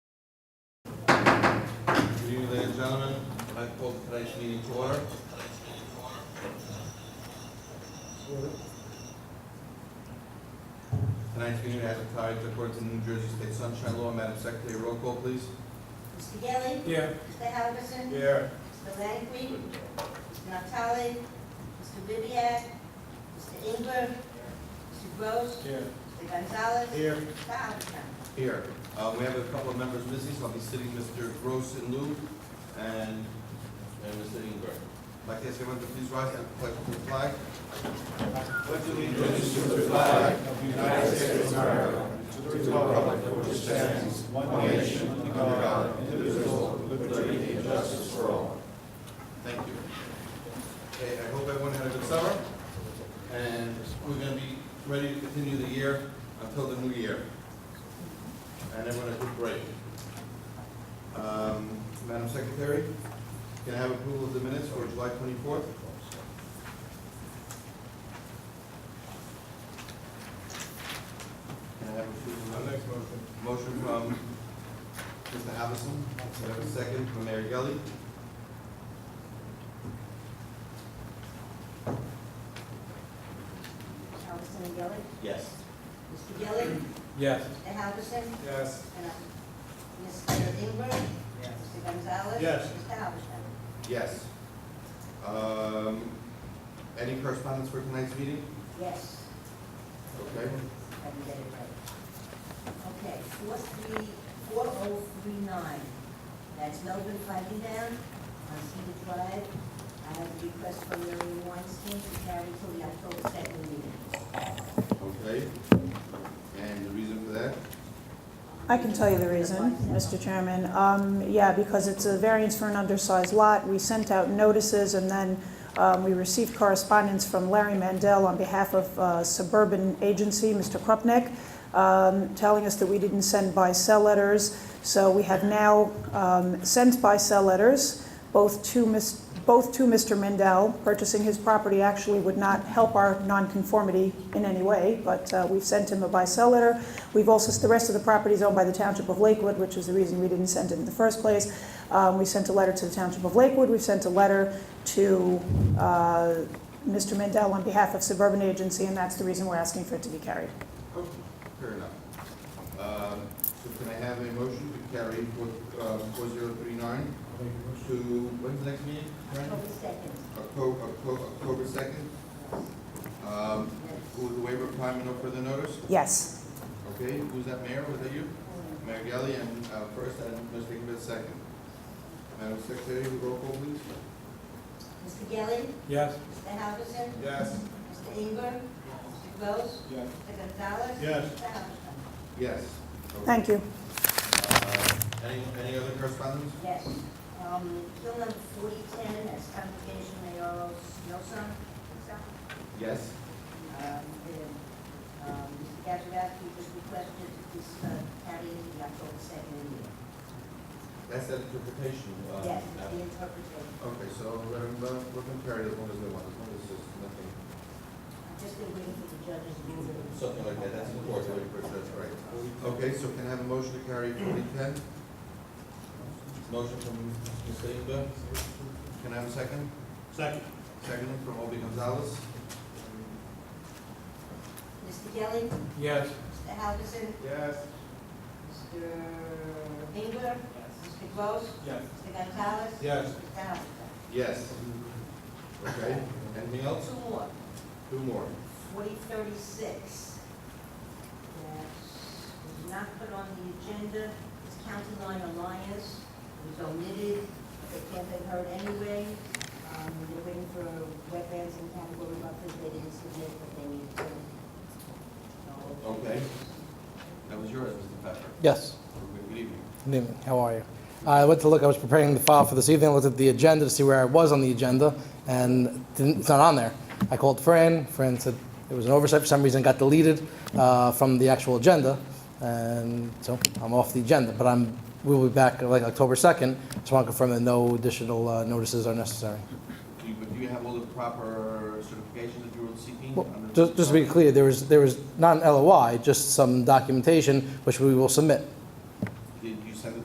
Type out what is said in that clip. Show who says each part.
Speaker 1: you, ladies and gentlemen. I call tonight's meeting to order. Tonight's meeting advertised according to New Jersey State Sunshine Law. Madam Secretary, roll call, please.
Speaker 2: Mr. Gelli,
Speaker 3: Here.
Speaker 2: Mr. Halverson,
Speaker 3: Here.
Speaker 2: Mr. Langley, Mr. Natale, Mr. Vivian, Mr. Inger, Mr. Gross,
Speaker 3: Here.
Speaker 2: Mr. Gonzalez,
Speaker 3: Here.
Speaker 2: Mr. Halverson.
Speaker 1: Here. Uh, we have a couple of members missing, so I'll be sitting Mr. Gross and Lou and, and Mr. Inger. I'd like to ask everyone to please rise and pledge to the flag. Thank you. Okay, I hope everyone had a good summer, and we're gonna be ready to continue the year until the new year. And everyone a good break. Um, Madam Secretary, can I have approval of the minutes for July twenty-fourth? Can I have approval? of the minutes? Motion from Mr. Havison, Can I have a second from Mayor Gelli.
Speaker 2: Halverson and Gelli.
Speaker 1: Yes.
Speaker 2: Mr. Gelli,
Speaker 3: Yes.
Speaker 2: Mr. Halverson,
Speaker 3: Yes.
Speaker 2: and uh, Mr. Inger, Mr. Gonzalez.
Speaker 3: Yes.
Speaker 2: Mr. Halverson.
Speaker 1: Yes. Um, any correspondence for tonight's meeting?
Speaker 2: Yes.
Speaker 1: Okay.
Speaker 2: I can get it right. Okay, four three, four oh three nine, that's Melbourne Flagging Down on Cedar Drive. I have a request from Mary Weinstein to carry till the October second meeting.
Speaker 1: Okay. And the reason for that?
Speaker 4: I can tell you the reason, Mr. Chairman. Um, Yeah, because it's a variance for an undersized lot. We sent out notices, and then um, we received correspondence from Larry Mandel on behalf of uh, Suburban Agency, Mr. Krupnik, um, telling us that we didn't send buy-sell letters. So we have now um, sent buy-sell letters, both to Ms., both to Mr. Mandel. Purchasing his property actually would not help our nonconformity in any way, but uh, we've sent him a buy-sell letter. We've also, the rest of the property is owned by the Township of Lakewood, which is the reason we didn't send it in the first place. Um, We sent a letter to the Township of Lakewood, we've sent a letter to uh, Mr. Mandel on behalf of Suburban Agency, and that's the reason we're asking for it to be carried.
Speaker 1: Oh, Fair enough. Um, so can I have a motion to carry four, uh, four zero three nine to, when's the next meeting?
Speaker 2: October second.
Speaker 1: October, October, October second. Um, with the waiver requirement, no further notice?
Speaker 4: Yes.
Speaker 1: Okay, who's that, Mayor? Was that you? Mayor Gelli, and, uh, first, and Mr. Ingber second. Madam Secretary, roll call please.
Speaker 2: Mr. Gelli,
Speaker 3: Yes.
Speaker 2: Mr. Halverson,
Speaker 3: Yes.
Speaker 2: Mr. Inger, Mr. Gross,
Speaker 3: Yes.
Speaker 2: Mr. Gonzalez.
Speaker 3: Yes.
Speaker 2: Mr. Halverson.
Speaker 1: Yes.
Speaker 4: Thank you.
Speaker 1: Uh, Any, any other correspondence?
Speaker 2: Yes. Um, bill number forty ten, that's application Mayor Snowson.
Speaker 1: Yes.
Speaker 2: Um, the, um, Mr. Gazarovski was requested to this, uh, carry into the October second meeting.
Speaker 1: That's the interpretation. uh,
Speaker 2: Yes,
Speaker 1: app-
Speaker 2: the interpretation.
Speaker 1: Okay, so let him, uh, let him carry it as long as they want, as long as there's nothing,
Speaker 2: I'm just been waiting for the judge's ruling.
Speaker 1: something like that, that's important, that's right. Okay, so can I have a motion to carry forty ten? Motion from Ms. Ingber. Can I have a second?
Speaker 3: Second.
Speaker 1: Second from Obi Gonzalez?
Speaker 2: Mr. Gelli,
Speaker 3: Yes.
Speaker 2: Mr. Halverson,
Speaker 3: Yes.
Speaker 2: Mr. Inger, Mr. Gross,
Speaker 3: Yes.
Speaker 2: Mr. Gonzalez.
Speaker 3: Yes.
Speaker 2: Mr. Halverson.
Speaker 1: Yes. Okay, anything else?
Speaker 2: Two more.
Speaker 1: Two more.
Speaker 2: forty thirty-six. That was not put on the agenda, it's County Line Alliance, it was omitted, it can't be heard anyway. Um, they're waiting for wetlands and category buffers, they didn't submit what they needed to. So-
Speaker 1: Okay. That was yours, Mr. Pepper.
Speaker 5: Yes,
Speaker 1: Good evening.
Speaker 5: good evening, how are you? I went to look, I was preparing the file for this evening, I looked at the agenda to see where I was on the agenda, and didn't- it's not on there. I called Fran, Fran said it was an oversight for some reason, got deleted uh, from the actual agenda, and so I'm off the agenda, but I'm, we'll be back uh, like October 2nd, just want to confirm that no additional uh, notices are necessary.
Speaker 1: Do you, but do you have all the proper certifications that you were seeking?
Speaker 5: Well,
Speaker 1: under-
Speaker 5: Just just to be clear, there was, there was not an LOI, just some documentation which we will submit.